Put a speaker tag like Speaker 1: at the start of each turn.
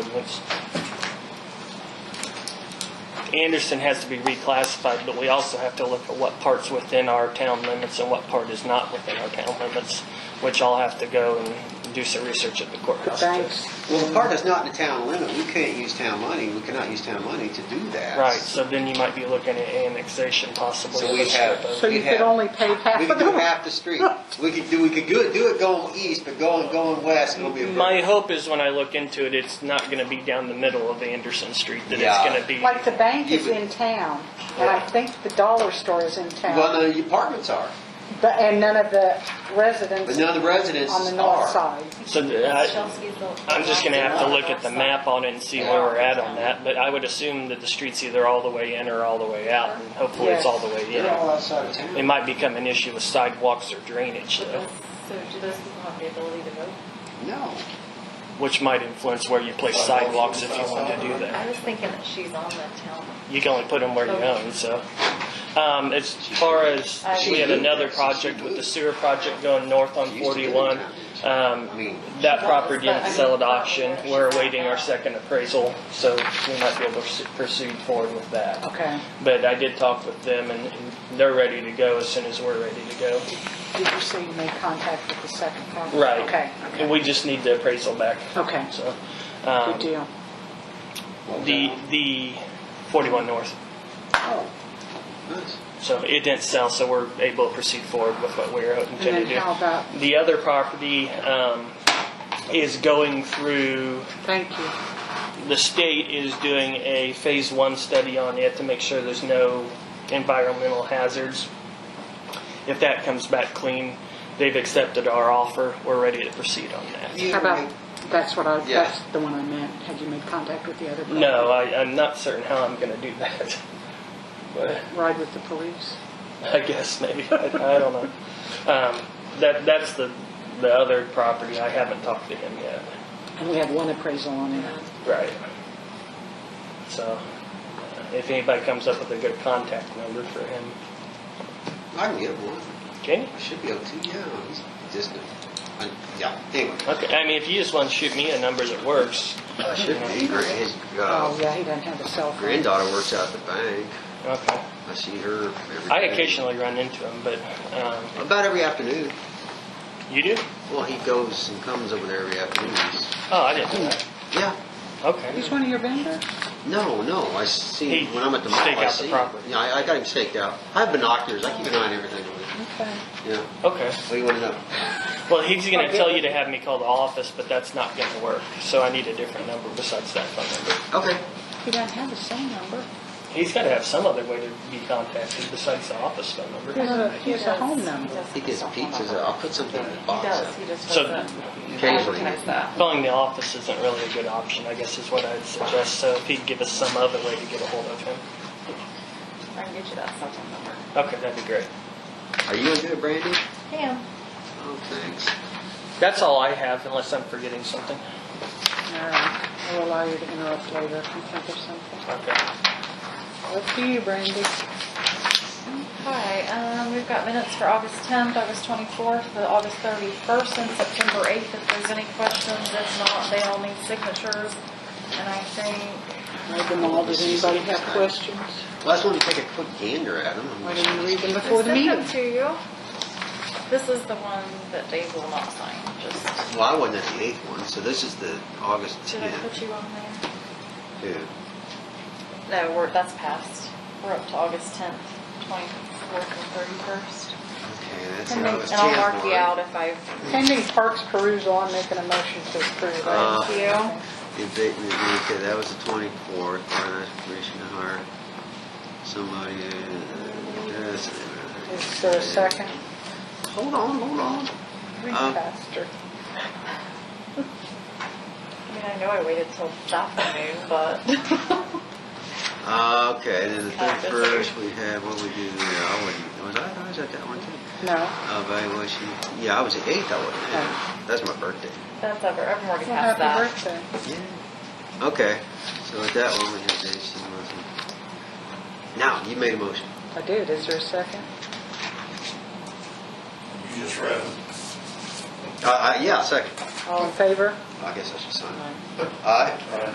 Speaker 1: which Anderson has to be reclassified, but we also have to look at what part's within our town limits and what part is not within our town limits, which I'll have to go and do some research at the courthouse. to-
Speaker 2: Thanks.
Speaker 3: Well, the part that's not in the town limit, we can't use town money, we cannot use town money to do that.
Speaker 1: Right, so then you might be looking at annexation possibly.
Speaker 3: So we have-
Speaker 2: So you
Speaker 3: We'd
Speaker 2: could
Speaker 3: have-
Speaker 2: only pay half
Speaker 3: We
Speaker 2: of
Speaker 3: could do
Speaker 2: them.
Speaker 3: half the street. We could do, we could do it, do it going east, but going, going west, it'll be a
Speaker 1: My
Speaker 3: burden.
Speaker 1: hope is when I look into it, it's not gonna be down the middle of Anderson Street, that it's
Speaker 3: Yeah.
Speaker 1: gonna be.
Speaker 2: Like the bank is
Speaker 3: You would-
Speaker 2: in town, and I
Speaker 1: Yeah.
Speaker 2: think the dollar store is in
Speaker 3: Well,
Speaker 2: town,
Speaker 3: none of the apartments are,
Speaker 2: but, and none of the residents
Speaker 3: but none of the residences are.
Speaker 2: on the north side.
Speaker 1: So th- I, I'm just gonna have to look at the map on it and see where we're at on that, but I would assume that the street's either all the way in or all the way out, and hopefully it's all the way
Speaker 3: They're
Speaker 1: in.
Speaker 3: all outside of
Speaker 1: It
Speaker 3: town.
Speaker 1: might become an issue with sidewalks or drainage
Speaker 4: So
Speaker 1: though,
Speaker 4: do those people have the ability to vote?
Speaker 3: No.
Speaker 1: which might influence where you place sidewalks if you want to do that.
Speaker 4: I was thinking that she's on the town.
Speaker 1: You can only put them where you own, so. Um, as far as, we had another project with the sewer project going north on forty-one. Um, that property didn't sell at auction. We're awaiting our second appraisal, so we might be able to proceed forward with that.
Speaker 2: Okay.
Speaker 1: But I did talk with them and and they're ready to go as soon as we're ready to go.
Speaker 2: Did you say you made contact with the second property?
Speaker 1: Right.
Speaker 2: Okay, okay.
Speaker 1: And we just need the appraisal back,
Speaker 2: Okay,
Speaker 1: so.
Speaker 2: good
Speaker 1: Um,
Speaker 2: deal.
Speaker 1: the, the forty-one north.
Speaker 3: Oh, nice.
Speaker 1: So it didn't sell, so we're able to proceed forward with what we were hoping
Speaker 2: And
Speaker 1: to
Speaker 2: then how
Speaker 1: do.
Speaker 2: about,
Speaker 1: The other property um, is going through,
Speaker 2: thank you.
Speaker 1: the state is doing a phase one study on it to make sure there's no environmental hazards. If that comes back clean, they've accepted our offer, we're ready to proceed on that.
Speaker 3: You
Speaker 2: How about,
Speaker 3: make-
Speaker 2: that's what I,
Speaker 3: Yeah.
Speaker 2: that's the one I meant. Had you made contact with the other? property?
Speaker 1: No, I, I'm not certain how I'm gonna do that. But
Speaker 2: Ride with the police?
Speaker 1: I guess maybe, I, I don't know. Um, that, that's the, the other property, I haven't talked to him yet.
Speaker 2: And we had one appraisal on it.
Speaker 1: Right. So, uh, if anybody comes up with a good contact number for him,
Speaker 3: I can get one.
Speaker 1: okay?
Speaker 3: I should be able to, yeah. He's Just, I- yeah, anyway.
Speaker 1: Okay, I mean, if you just want to shoot me a number that works,
Speaker 3: I should be. His
Speaker 2: Oh,
Speaker 3: uh,
Speaker 2: yeah, he doesn't have a cell phone.
Speaker 3: granddaughter works out at the bank.
Speaker 1: okay.
Speaker 3: I see her every
Speaker 1: I
Speaker 3: day.
Speaker 1: occasionally run into him, but, um,
Speaker 3: About every afternoon.
Speaker 1: you do?
Speaker 3: Well, he goes and comes over there every afternoon.
Speaker 1: Oh, I didn't know that.
Speaker 3: Yeah.
Speaker 1: Okay.
Speaker 2: He's one of your vendors?
Speaker 3: No, no. I see
Speaker 1: He
Speaker 3: when I'm at the mall.
Speaker 1: stake
Speaker 3: I
Speaker 1: out the
Speaker 3: see.
Speaker 1: property.
Speaker 3: Yeah, I, I got him staked out. I have binoculars. I keep an eye on everything. over there.
Speaker 2: Okay.
Speaker 3: Yeah.
Speaker 1: Okay.
Speaker 3: What do you want to know?
Speaker 1: Well, he's going to
Speaker 2: Okay.
Speaker 1: tell you to have me call the office, but that's not going to work. So I need a different number besides that phone number.
Speaker 3: Okay.
Speaker 2: He doesn't have a cell number.
Speaker 1: He's got to have some other way to be contacted besides the office phone
Speaker 2: He
Speaker 1: number.
Speaker 2: has a, he has a
Speaker 4: does.
Speaker 2: home number.
Speaker 3: He gets pizzas. I'll put something in the
Speaker 4: He
Speaker 3: box.
Speaker 4: does, he just
Speaker 1: So-
Speaker 4: doesn't.
Speaker 3: Occasionally.
Speaker 4: advertise that.
Speaker 1: Calling the office isn't really a good option, I guess is what I'd suggest. So if he'd give us some other way to get a hold of him.
Speaker 4: I can get you that cell phone number.
Speaker 1: Okay, that'd be great.
Speaker 3: Are you gonna do it, Brandy?
Speaker 4: Pam?
Speaker 3: Oh, thanks.
Speaker 1: That's all I have, unless I'm forgetting something.
Speaker 2: All right, I'll allow you to interrupt later if you think of something.
Speaker 1: Okay.
Speaker 2: Up to you, Brandy.
Speaker 4: Hi, um, we've got minutes for August 10th, August 24th, the August 31st, and September 8th. If there's any questions, if not, they all need signatures. And I think,
Speaker 2: Read them all. Does anybody have questions?
Speaker 3: Well, I just wanted to take a quick gander at him.
Speaker 2: Why didn't you read them before the
Speaker 4: I sent
Speaker 2: meeting?
Speaker 4: them to you. This is the one that Dave will not sign, just,
Speaker 3: Well, I wasn't at the eighth one, so this is the August
Speaker 4: did I
Speaker 3: tenth.
Speaker 4: put you on there?
Speaker 3: Yeah.
Speaker 4: No, we're, that's passed. We're up to August 10th, 24th, and 31st.
Speaker 3: Okay, that's
Speaker 4: And
Speaker 3: the August
Speaker 4: I'll
Speaker 3: tenth
Speaker 4: mark you out
Speaker 3: one.
Speaker 4: if I've,
Speaker 2: Pending Parks perusal, I'm making a motion to approve.
Speaker 3: Uh,
Speaker 4: thank you.
Speaker 3: If they- Okay, that was the twenty-fourth, finance commission to hire somebody. uh, that's-
Speaker 2: Is there a second?
Speaker 3: Hold on, hold on.
Speaker 2: Read
Speaker 3: Um,
Speaker 2: faster.
Speaker 4: I mean, I know I waited till that afternoon, but.
Speaker 3: Uh, Okay, then the
Speaker 4: Uh, that's okay.
Speaker 3: thirty-first, we had, what we do there, I wasn't, was I, I was at that one too? Uh,
Speaker 2: No.
Speaker 3: Evaluation, yeah, I was the eighth, I wasn't there. That's my birthday.
Speaker 4: That's ever, I've already
Speaker 2: Well, happy
Speaker 4: passed that.
Speaker 2: birthday.
Speaker 3: Yeah. Okay, so at that one, we had Dave C. Wilson. Now, you made a motion.
Speaker 2: I did. Is there a second?
Speaker 5: You just read them.
Speaker 3: Uh, uh, yeah, second.
Speaker 2: All in favor?
Speaker 3: I guess I should sign. Aye.